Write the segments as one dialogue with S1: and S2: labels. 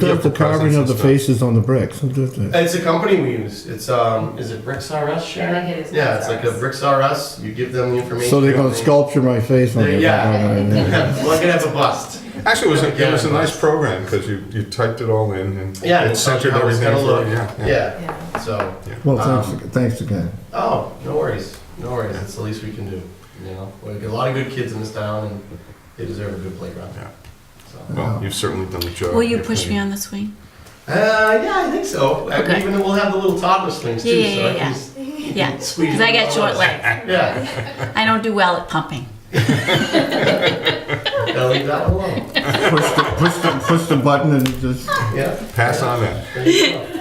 S1: does the
S2: vehicle presence
S1: carving of
S2: and
S1: the
S2: stuff.
S1: faces on the bricks? Who does that?
S2: It's a company we use. It's um, is it Bricks RS,
S3: Yeah, I
S2: Sharon?
S3: think it is
S2: Yeah, it's like
S3: Bricks
S2: a
S3: RS.
S2: Bricks RS. You give them the information.
S1: So they're gonna
S2: and they-
S1: sculpture my face on
S2: They-
S1: it?
S2: yeah.
S1: Yeah.
S2: We're gonna have a bust.
S4: Actually, it was, a- it was a
S2: Yeah.
S4: nice program, because you, you typed it all in and
S2: Yeah,
S4: it
S2: it's how it's
S4: centered everything.
S2: gonna
S4: for
S2: look.
S4: you. Yeah, yeah.
S2: Yeah.
S3: Yeah.
S2: So,
S1: Well,
S2: Um,
S1: thanks, thanks again.
S2: oh, no worries, no worries. It's the least we can do. You know, we got a lot of good kids in this town, and they deserve a good playground.
S4: Yeah.
S2: So.
S4: Well, you've certainly done the job.
S5: Will you push me on the swing?
S2: Uh, yeah, I think so. I mean,
S5: Okay.
S2: Even we'll have the little toddler swings too.
S5: Yeah, yeah,
S2: so I
S5: yeah,
S2: can
S5: yeah.
S2: just-
S5: Yeah,
S2: Squeeze
S5: because I
S2: it
S5: got
S2: all
S5: short
S2: out.
S5: legs.
S2: yeah.
S5: I don't do well at pumping.
S2: Gotta leave that one alone.
S1: Push the, push the, push the button and just,
S2: Yeah.
S4: Pass on that.
S2: There you go.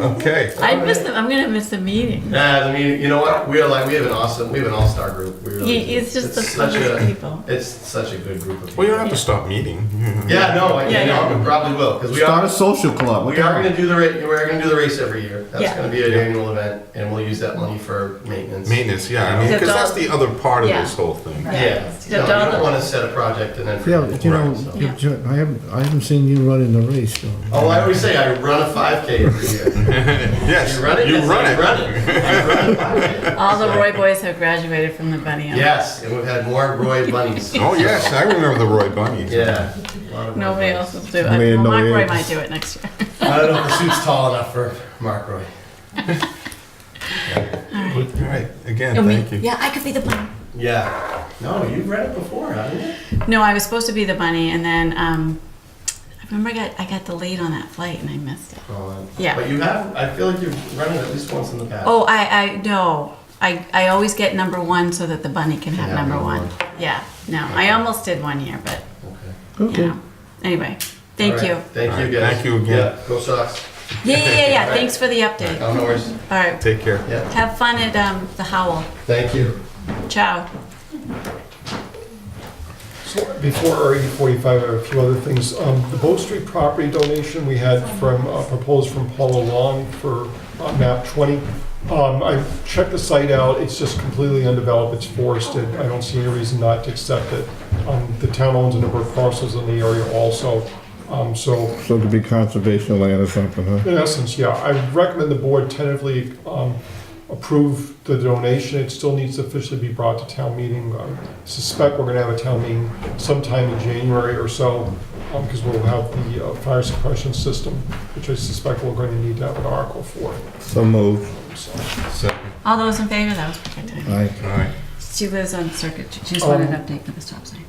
S4: Okay.
S5: I miss them. I'm gonna miss the meeting.
S2: Yeah, I mean, you know what? We are like we have an awesome, we have an all-star group. We really do.
S5: Yeah, it's just the
S2: such
S5: funniest
S2: a-
S5: people.
S2: It's such a good group of people.
S4: Well, you don't have to stop meeting.
S2: yeah, no, I,
S5: Yeah,
S2: you know,
S5: yeah.
S2: we probably will because we
S1: start a
S2: are
S1: social club. What
S2: we
S1: the
S2: are
S1: hell?
S2: going to do the race. We're going to do the race every year. That's
S5: Yeah.
S2: going to be an annual event, and we'll use that money for maintenance.
S4: Maintenance, yeah, I mean,
S5: Because
S4: because that's
S5: all-
S4: the other part of
S5: Yeah.
S4: this whole thing.
S2: Yeah,
S3: Right.
S2: no, you
S5: Don't-
S2: don't want to set a project and then.
S1: Yeah, but you know,
S4: Right,
S2: so.
S1: you- you- I haven't, I haven't seen you run in the race, so.
S2: Oh, I always say I run a 5K every year.
S4: Yes,
S2: You run it.
S4: you
S2: that's
S4: run
S2: I
S4: it.
S2: Run it. I run a 5K.
S5: All the Roy boys have graduated from the bunny. Elm.
S2: Yes, and we've had more Roy bunnies.
S4: Oh, yes, I remember the Roy Bunnies.
S2: Yeah. a lot of Roy
S5: Nobody
S2: bunnies.
S5: else will do it.
S1: Man,
S5: Well,
S1: no
S5: Mark Roy
S1: eggs.
S5: might do it next year.
S2: I don't know if the suit's tall enough for Mark Roy.
S4: All right, again, thank you.
S5: Yeah, I could be the bunny.
S2: Yeah. No, you've read it before, haven't you?
S5: No, I was supposed to be the bunny, and then um, I remember I got I got delayed on that flight, and I missed it.
S2: Well,
S5: Yeah.
S2: But you have, I feel like you've run it at least once in the past.
S5: Oh, I I no. I, I always get number one so that the bunny can have
S2: Yeah,
S5: number
S2: number
S5: one. Yeah, no, I almost did one year, but
S2: Okay.
S5: you
S1: Okay.
S5: know. Anyway, thank
S2: All right.
S5: you.
S2: Thank
S4: All right,
S2: you, guys.
S4: thank you again.
S2: Yeah, go Sox.
S5: Yeah, yeah, yeah, yeah.
S2: Right.
S5: Thanks for the update.
S2: No worries.
S5: All right.
S4: Take care.
S2: Yeah,
S5: Have fun at um, the Howl.
S2: thank you.
S5: Ciao.
S6: So Before RE forty-five, I have a few other things. Um, the Bow Street property donation we had from, uh, proposed from Paula Long for uh, map twenty. Um, I checked the site out, it's just completely undeveloped, it's forested, I don't see any reason not to accept it. Um, the town owns a number of parcels in the area also, um, so
S1: So it could be conservation land or something, huh?
S6: in essence, yeah, I recommend the board tentatively um, approve the donation. It still needs to officially be brought to town meeting. I suspect we're gonna have a town meeting sometime in January or so, because we'll have the uh, fire suppression system, which I suspect we're gonna need to have an article for.
S1: So moved.
S6: So,
S4: So,
S5: All those in favor? That was perfect timing.
S1: Aye.
S4: all right.
S5: She lives on circuit. She just
S6: Um,
S5: wanted an update for the stop sign.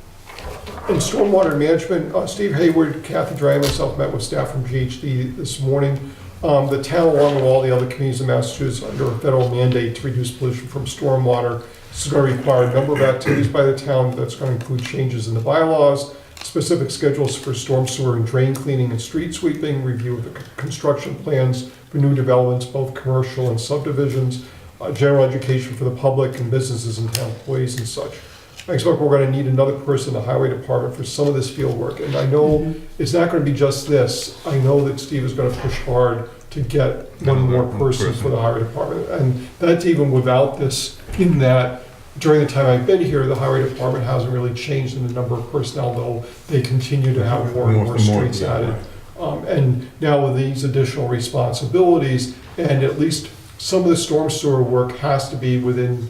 S6: In stormwater management, uh, Steve Hayward, Kathy Dry, and myself met with staff from GHD this morning. Um, The town, along with all the other communities in Massachusetts, under a federal mandate to reduce pollution from stormwater. This is going to require a number of activities by the town that's going to include changes in the bylaws, specific schedules for storm sewer and drain cleaning and street sweeping, review of the c- construction plans for new developments, both commercial and subdivisions, uh, general education for the public and businesses and town employees and such. I expect we're gonna need another person in the highway department for some of this field work, and I know it's not gonna be just this. I know that Steve is gonna push hard to get one more person for the highway department, and that's even without this, in that during the time I've been here, the highway department hasn't really changed in the number of personnel, though they continue to have more and more streets
S4: yeah,
S6: added.
S4: right.
S6: Um, And now with these additional responsibilities, and at least some of the storm sewer work has to be within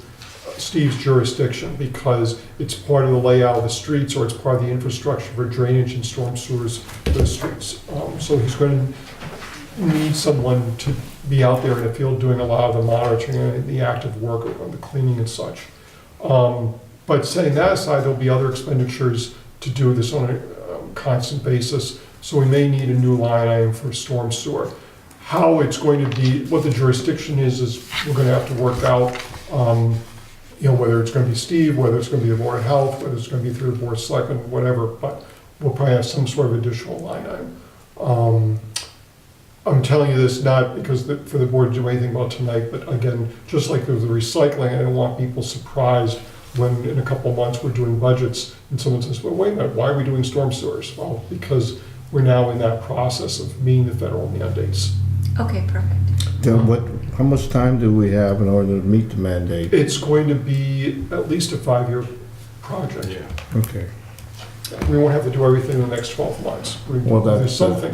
S6: Steve's jurisdiction because it's part of the layout of the streets or it's part of the infrastructure for drainage and storm sewers for the streets. Um, So he's going to need someone to be out there in the field doing a lot of the monitoring and the active work of the cleaning and such. Um, But setting that aside, there'll be other expenditures to do this on a um, constant basis. So we may need a new line item for storm sewer. How it's going to be, what the jurisdiction is, is we're going to have to work out. um, you know, whether it's gonna be Steve, whether it's gonna be the Board of Health, whether it's gonna be through the Board of Selectmen, whatever, but we'll probably have some sort of additional line item. Um, I'm telling you this not because the, for the board to do anything about tonight, but again, just like there was the recycling, I don't want people surprised when in a couple of months we're doing budgets and someone says, well, wait a minute, why are we doing storm sewers? Well, because we're now in that process of meeting the federal mandates.
S5: Okay, perfect.
S1: Then what, how much time do we have in order to meet the mandate?
S6: It's going to be at least a five-year project.
S4: Yeah.
S1: Okay.
S5: so.
S6: We won't have to do everything in the next 12 months. We-
S1: Well, that's-
S6: There's something